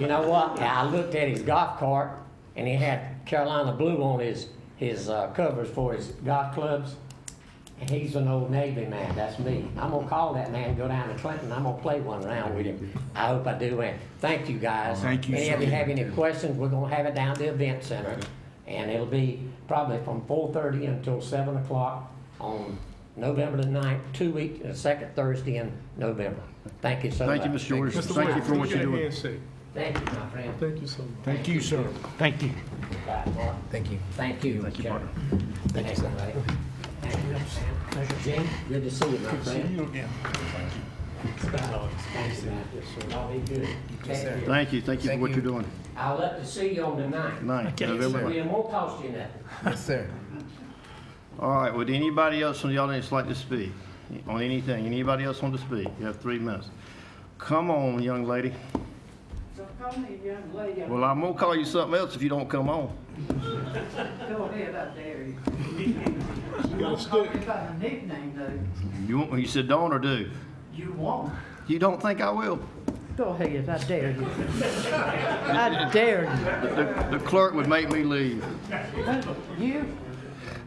You know what? I looked at his golf cart and he had Carolina blue on his, his uh, covers for his golf clubs. And he's an old Navy man, that's me. I'm gonna call that man, go down to Clinton, I'm gonna play one round with him. I hope I do, and thank you guys. Thank you, Any of sir. you have any questions, we're gonna have it down at the event center. And it'll be probably from four thirty until seven o'clock on November the ninth, two week, the second Thursday in November. Thank you so much. Thank you, Mr. George. Mr. Thank you Wade, for what give you're me that doing. handshake. Thank you, my friend. Thank you so much. Thank you, sir. Thank you. Thank you. Thank you. Thank you, partner. Thank you, sir. Jim, good to see you, my friend. Thank you, man. Y'all be good. Thank you. Thank you, thank you for what you're doing. I'll let to see you on the ninth. Ninth, November We ninth. won't cost you nothing. Yes, sir. All right, would anybody else from the audience like to speak on anything? Anybody else want to speak? You have three minutes. Come on, young lady. Don't call me a young lady, I'm Well, I'm gonna call you something else if you don't come on. go ahead, I dare you. You gotta Call me stick. by my nickname though, You want, you said don't or do? you won't. You don't think I will? Go ahead, I dare you. I dare The the clerk would make me leave. you. You?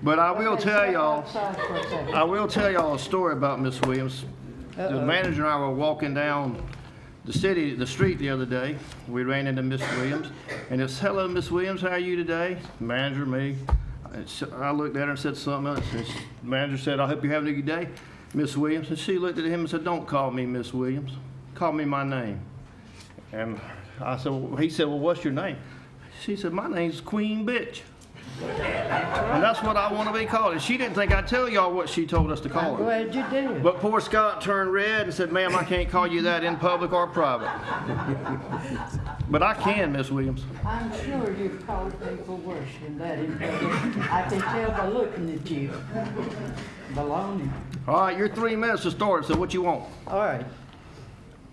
But I will Okay, tell step y'all, outside for a second. I will tell y'all a story about Miss Williams. The Uh-oh. manager and I were walking down the city, the street the other day. We ran into Miss Williams, and it's, "Hello, Miss Williams, how are you today?" Manager, me. And so I looked at her and said something else. And she- manager said, "I hope you're having a good day, Miss Williams." And she looked at him and said, "Don't call me Miss Williams. Call me my name." And I said, well, he said, "Well, what's your name?" She said, "My name's Queen Bitch." And that's what I want to be called. And she didn't think I'd tell y'all what she told us to call I'm her. glad you did. But poor Scott turned red and said, ma'am, I can't call you that in public or private. But I can, Miss Williams. I'm sure you've called people worse than that in public. I can tell by looking at you. Baloney. All right, you're three minutes to start, so what you want? All right.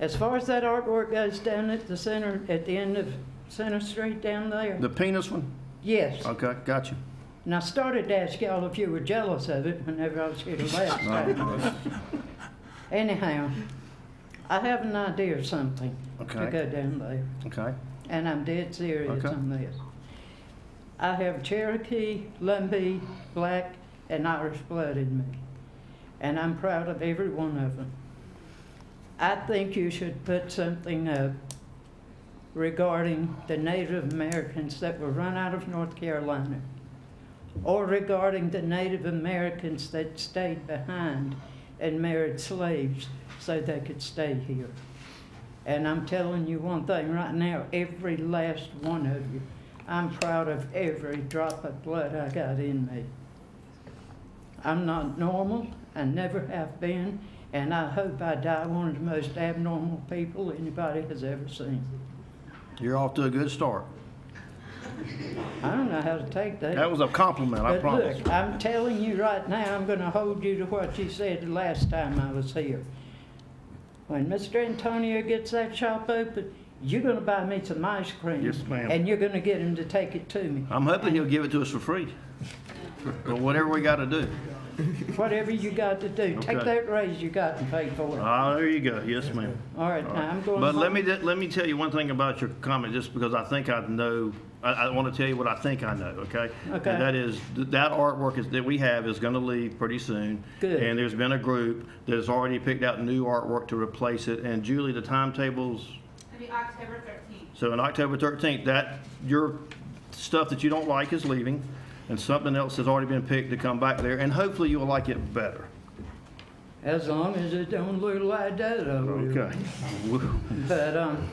As far as that artwork goes down at the center, at the end of Center Street down there, The penis one? yes. Okay, got you. And I started to ask y'all if you were jealous of it whenever I was here the last time. Anyhow, I have an idea of something to Okay. go down there, Okay, and I'm dead serious Okay. on this. I have Cherokee, Lumbee, Black, and Irish blood in me, and I'm proud of every one of them. I think you should put something up regarding the Native Americans that were run out of North Carolina, or regarding the Native Americans that stayed behind and married slaves so they could stay here. And I'm telling you one thing right now, every last one of you, I'm proud of every drop of blood I got in me. I'm not normal, I never have been, and I hope I die one of the most abnormal people anybody has ever seen. you're off to a good start. I don't know how to take that. That was a compliment, I But promise. look, I'm telling you right now, I'm gonna hold you to what you said the last time I was here. When Mr. Antonio gets that shop open, you're gonna buy me some ice cream. Yes, ma'am. And you're gonna get him to take it to me. I'm hoping he'll give it to us for free. But whatever we gotta do. Whatever you got to do, take Okay. that raise you got and pay for it. Ah, there you go, yes, ma'am. All right, now I'm going. But let home. me, let me tell you one thing about your comment, just because I think I know, I, I want to tell you what I think I know, okay? Okay. And that is, th- that artwork is, that we have is going to leave pretty soon. Good. And there's been a group that has already picked out new artwork to replace it, and Julie, the timetables, It'll be October thirteenth. so on October 13th, that, your stuff that you don't like is leaving, and something else has already been picked to come back there, and hopefully you'll like it better. As long as it don't look like that, I will. Okay. But, um,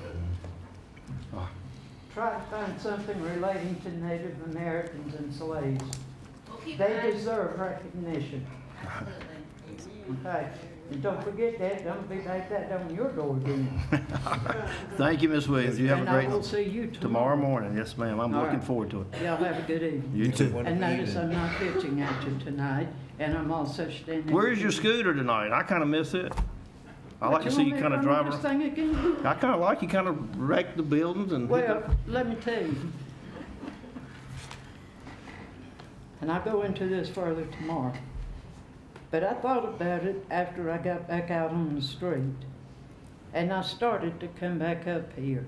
Ah. try to find something relating to Native Americans and slaves. We'll keep an They eye- deserve recognition, Absolutely. okay? And don't forget that, don't be like that on your door again. Thank you, Miss Williams, you have a And I great, will see you tomorrow. tomorrow morning, yes, ma'am, I'm All looking right. forward to it. Y'all have a good evening. You too. And notice I'm not pitching at you tonight, and I'm also standing. Where's your scooter tonight? I kind of miss it. I like to see you kind of drive around. thing again? I kind of like you kind of wreck the buildings and. hit the- Well, let me tell you. And I'll go into this further tomorrow. But I thought about it after I got back out on the street. And I started to come back up here.